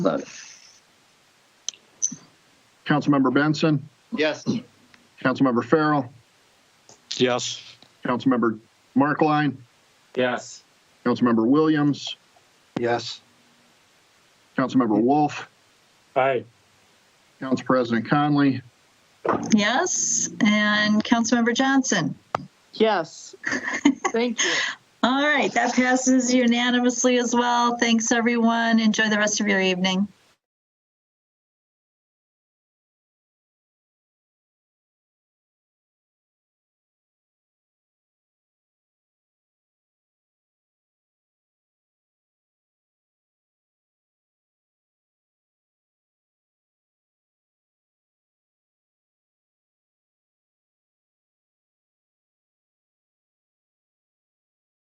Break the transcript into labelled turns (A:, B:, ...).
A: vote.
B: Councilmember Benson,
C: Yes.
B: Councilmember Farrell,
D: Yes.
B: Councilmember Markline,
E: Yes.
B: Councilmember Williams,
D: Yes.
B: Councilmember Wolf,
E: Aye.
B: Council President Conley,
A: Yes, and Councilmember Johnson.
C: Yes. Thank you.
A: All right, that passes unanimously as well. Thanks, everyone. Enjoy the rest of your evening.